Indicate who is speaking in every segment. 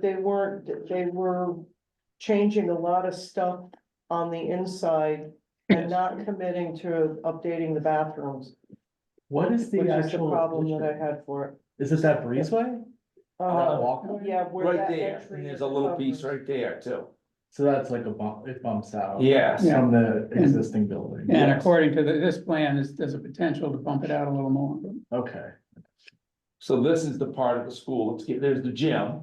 Speaker 1: They weren't, they were changing a lot of stuff on the inside and not committing to updating the bathrooms,
Speaker 2: What is
Speaker 1: which
Speaker 2: the
Speaker 1: is the
Speaker 2: actual?
Speaker 1: problem that I
Speaker 2: addition?
Speaker 1: had for it.
Speaker 2: Is this that breezeway? That
Speaker 1: Uh,
Speaker 2: walkway?
Speaker 1: yeah, where
Speaker 3: Right
Speaker 1: that
Speaker 3: there,
Speaker 1: entry
Speaker 3: and there's
Speaker 1: is
Speaker 3: a little piece
Speaker 1: covered.
Speaker 3: right there too.
Speaker 2: So that's like a bump, it bumps out.
Speaker 3: Yes,
Speaker 4: Yeah.
Speaker 2: From the existing building.
Speaker 4: And according to the- this plan, there's, there's a potential to bump it out a little more.
Speaker 2: Okay,
Speaker 3: so this is the part of the school, let's get, there's the gym.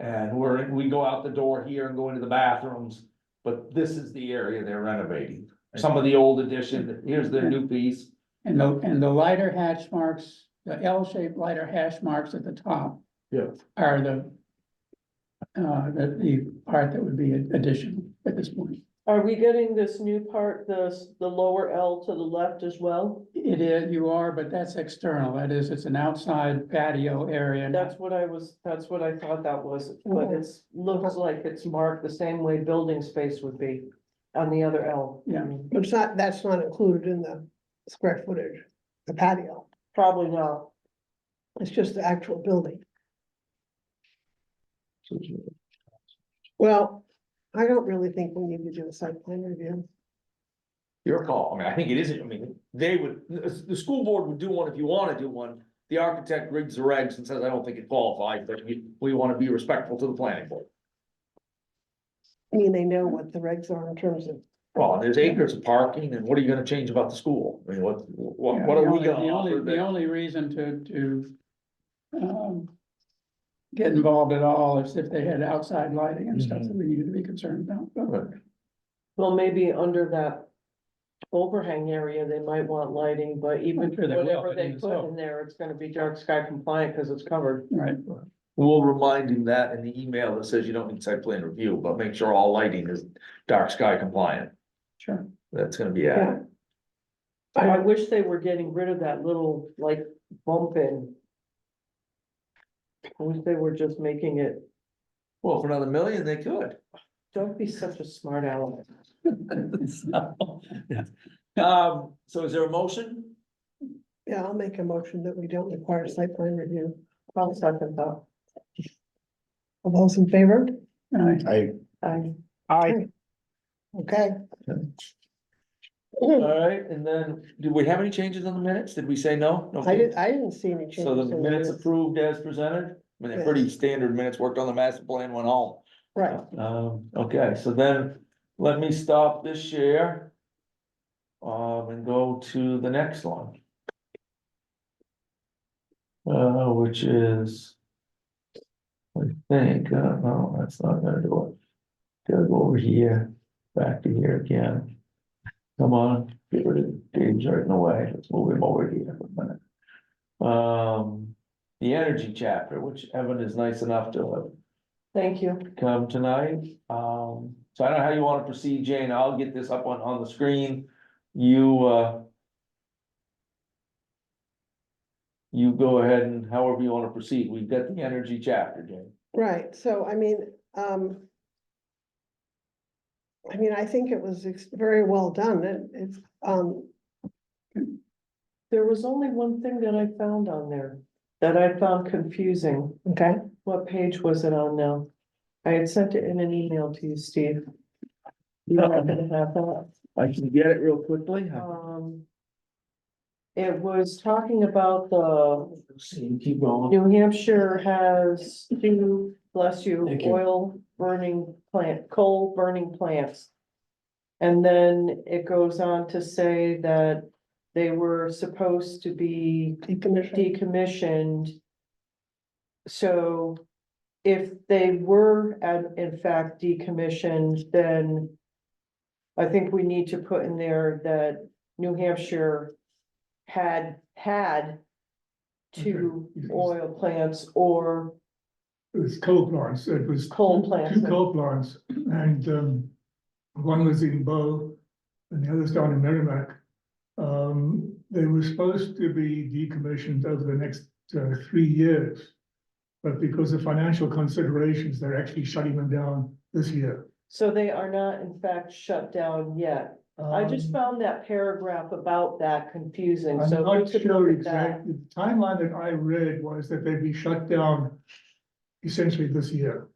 Speaker 3: And we're, we go out the door here and go into the bathrooms, but this is the area they're renovating. Some of the old addition, here's their new piece,
Speaker 4: And the, and the lighter hatch marks, the L-shaped lighter hash marks at the top
Speaker 2: yeah,
Speaker 4: are the uh, the, the part that would be additional at this point.
Speaker 1: Are we getting this new part, this, the lower L to the left as well?
Speaker 4: It is, you are, but that's external. That is, it's an outside patio area. not-
Speaker 1: That's what I was, that's what I thought that was, but it's, looks like it's marked the same way building space would be on the other L.
Speaker 4: Yeah.
Speaker 5: But It's not, that's not included in the square footage, the patio,
Speaker 1: Probably not.
Speaker 5: it's just the actual building. Well, I don't really think we need to do a site plan review.
Speaker 3: your call, I mean, I think it is, I mean, they would, the, the school board would do one if you wanna do one. The architect rigs the regs and says, I don't think it qualifies, but we, we wanna be respectful to the planning board.
Speaker 5: I mean, they know what the regs are in terms of,
Speaker 3: Well, there's acres of parking, and what are you gonna change about the school? I mean, what, what,
Speaker 4: Yeah,
Speaker 3: what
Speaker 4: the
Speaker 3: are we
Speaker 4: only-
Speaker 3: gonna
Speaker 4: The only,
Speaker 3: offer
Speaker 4: the
Speaker 3: that?
Speaker 4: only reason to, to, um, get involved at all is if they had outside lighting and stuff
Speaker 3: Mm-hmm.
Speaker 4: that we needed to be concerned about.
Speaker 3: Right.
Speaker 4: But
Speaker 1: Well, maybe under that overhang area, they might want lighting, but even
Speaker 4: I'm sure they will,
Speaker 1: whatever
Speaker 4: but
Speaker 1: they
Speaker 4: even
Speaker 1: put
Speaker 4: so.
Speaker 1: in there, it's gonna be dark sky compliant because it's covered.
Speaker 4: Right,
Speaker 3: We'll remind him that in the email that says you don't need site plan review, but make sure all lighting is dark sky compliant,
Speaker 4: sure.
Speaker 3: that's gonna be
Speaker 5: yeah.
Speaker 3: added.
Speaker 1: I wish they were getting rid of that little like bump in. I wish they were just making it,
Speaker 3: Well, for another million, they could.
Speaker 1: don't be such a smart aleck.
Speaker 3: So, Um, so is there a motion?
Speaker 5: Yeah, I'll make a motion that we don't require site plan review.
Speaker 1: I'll second that.
Speaker 5: All those in favor?
Speaker 4: All right.
Speaker 2: I,
Speaker 1: I,
Speaker 5: Okay,
Speaker 3: Alright, and then, do we have any changes on the minutes? Did we say no? No
Speaker 5: I didn't, I didn't see any changes.
Speaker 3: So the
Speaker 5: in
Speaker 3: minutes approved as presented, I mean, they're pretty standard minutes, worked on the master plan, went home.
Speaker 5: Right,
Speaker 3: Um, okay, so then let me stop this share. Um, and go to the next one. Uh, which is. I think, uh, no, that's not gonna do it. Gotta go over here, back to here again. Come on, get rid of Dave's right in the way, let's move him over here for a minute. Um, the energy chapter, which Evan is nice enough to have
Speaker 1: thank you.
Speaker 3: come tonight. Um, so I don't know how you wanna proceed, Jane. I'll get this up on, on the screen. You, uh. You go ahead and however you wanna proceed. We've got the energy chapter, Jane.
Speaker 5: right, so I mean, um. I mean, I think it was ex- very well done, and it's, um,
Speaker 1: There was only one thing that I found on there that I found confusing.
Speaker 5: okay.
Speaker 1: What page was it on now? I had sent it in an email to you, Steve. You don't happen to have that?
Speaker 3: I can get it real quickly.
Speaker 1: Um. It was talking about the
Speaker 3: Keep going.
Speaker 1: New Hampshire has two, bless you,
Speaker 3: Thank you.
Speaker 1: oil burning plant, coal burning plants. And then it goes on to say that they were supposed to be
Speaker 5: decommission.
Speaker 1: decommissioned. So if they were at- in fact decommissioned, then I think we need to put in there that New Hampshire had, had two oil plants or
Speaker 6: It was coal plants, it was.
Speaker 1: Coal
Speaker 6: two-
Speaker 1: plants.
Speaker 6: Two coal plants, and um, one was in Bow, and the other's down in Merrimack. Um, they were supposed to be decommissioned over the next uh, three years. But because of financial considerations, they're actually shutting them down this year.
Speaker 1: so they are not in fact shut down yet. I just
Speaker 6: Um,
Speaker 1: found that paragraph about that confusing,
Speaker 6: I'm
Speaker 1: so. we
Speaker 6: not
Speaker 1: could
Speaker 6: sure
Speaker 1: look at that.
Speaker 6: exactly, the timeline that I read was that they'd be shut down essentially this year.